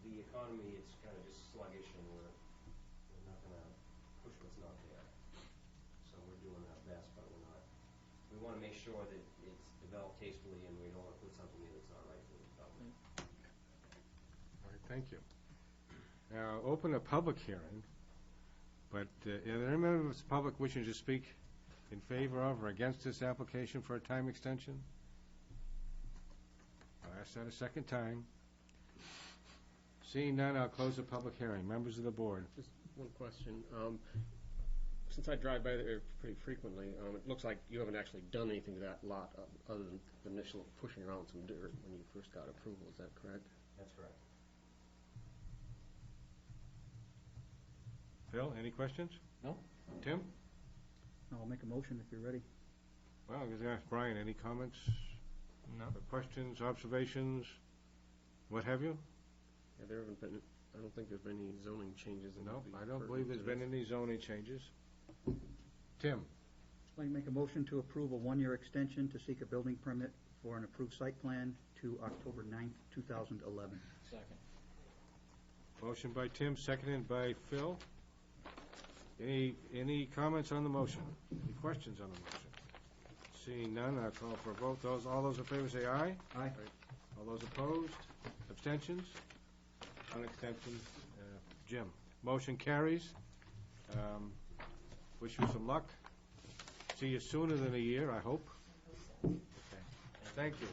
economy, it's kind of just sluggish and we're, we're not gonna push what's not there. So we're doing our best, but we're not, we wanna make sure that it's developed tastefully and we don't wanna put something in that's not right for the development. All right, thank you. Now, open a public hearing, but uh, are there any members of the public wishing to speak in favor of or against this application for a time extension? I'll ask that a second time. Seeing none, I'll close the public hearing. Members of the board, One question. Um, Since I drive by there pretty frequently, um, it looks like you haven't actually done anything to that lot o- other than the initial pushing around some dirt when you first got approval, is that correct? That's correct. Phil, any questions? No. Tim? I'll make a motion if you're ready. Well, I was gonna ask Brian, any comments, No. questions, observations, what have you? Yeah, there haven't been, I don't think there's been any zoning changes. that No, would be I don't believe there's pertinent to been this. any zoning changes. Tim? I'd like to make a motion to approve a one-year extension to seek a building permit for an approved site plan to October 9th, 2011. Second. Motion by Tim, seconded by Phil. Any, any comments on the motion? Any questions on the motion? Seeing none, I'll call for a vote. Those, all those in favor say aye. Aye. All those opposed? Abstentions? One abstention. Uh, Jim. Motion carries. Um, Wish you some luck. See you sooner than a year, I hope. Thank you.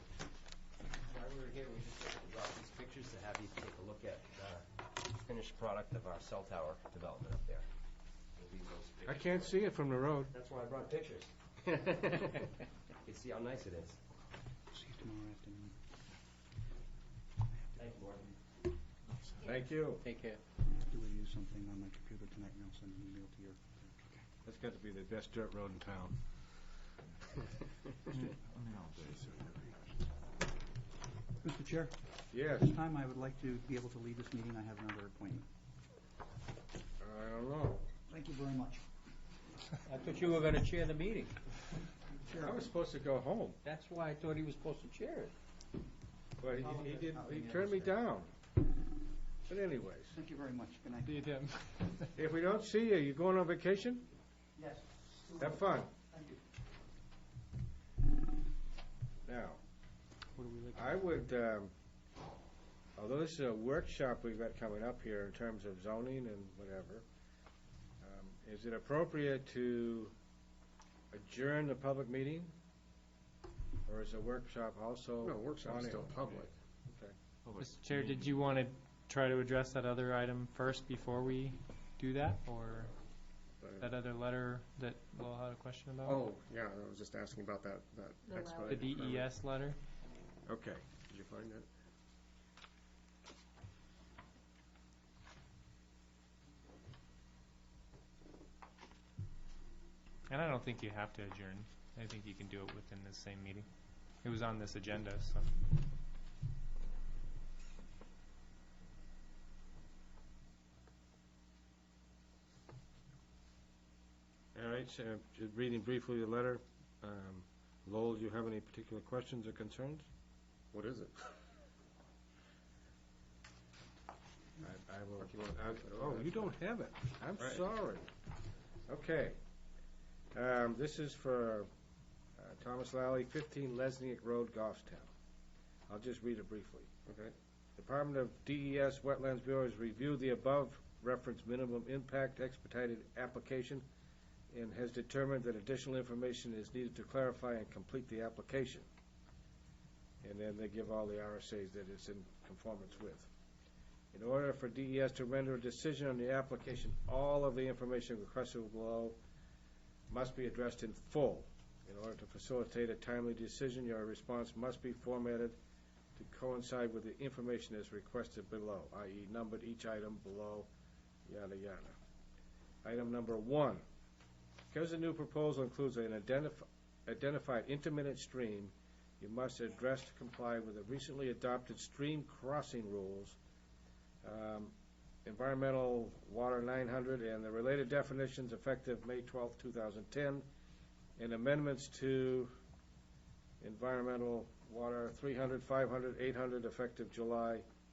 While we were here, we just brought these pictures to have you take a look at the finished product of our cell tower development up there. It'll be those I pictures. can't see it from the road. That's why I brought pictures. You can see how nice it is. See you tomorrow afternoon. Thank you, Morton. Thank you. Take care. I have to review something on my computer tonight, and I'll send an email to your... That's got to be the best dirt road in town. Mr. Chair, Yes. at this time, I would like to be able to leave this meeting. I have another appointment. I don't know. Thank you very much. I thought you were gonna chair the meeting. I was supposed to go home, That's why I thought he was supposed to chair it. but he, he did, he turned me down. But anyways, Thank you very much. Good night. Did him. if we don't see you, you going on vacation? Yes. Have fun. Thank you. Now, I would, um, although this is a workshop we've got coming up here in terms of zoning and whatever, um, is it appropriate to adjourn the public meeting? Or is the workshop also? No, workshop's on it? still public. Mr. Chair, did you want to try to address that other item first before we do that, or that other letter that Lowell had a question about? Oh, yeah, I was just asking about that, that The E expedited. permit. DES letter? Okay. Did you find that? And I don't think you have to adjourn. I think you can do it within the same meeting. It was on this agenda, so. All right, so, just reading briefly the letter. Um, Lowell, do you have any particular questions or concerns? What is it? I, I will, I- oh, you don't have it. I'm sorry. Okay. Um, this is for uh, Thomas Lally, fifteen Lesniak Road, Goffstown. I'll just read it briefly. Okay. Department of DES Wetlands Bureau has reviewed the above referenced minimum impact expedited application and has determined that additional information is needed to clarify and complete the application. And then they give all the RSAs that it's in conformance with. In order for DES to render a decision on the application, all of the information requested below must be addressed in full. In order to facilitate a timely decision, your response must be formatted to coincide with the information as requested below, i.e. numbered each item below, yada, yada. Item number one, because the new proposal includes an identif- identified intermittent stream, you must address to comply with the recently adopted stream crossing rules, um, environmental water 900 and the related definitions effective May 12, 2010, and amendments to environmental water 300, 500, 800 effective July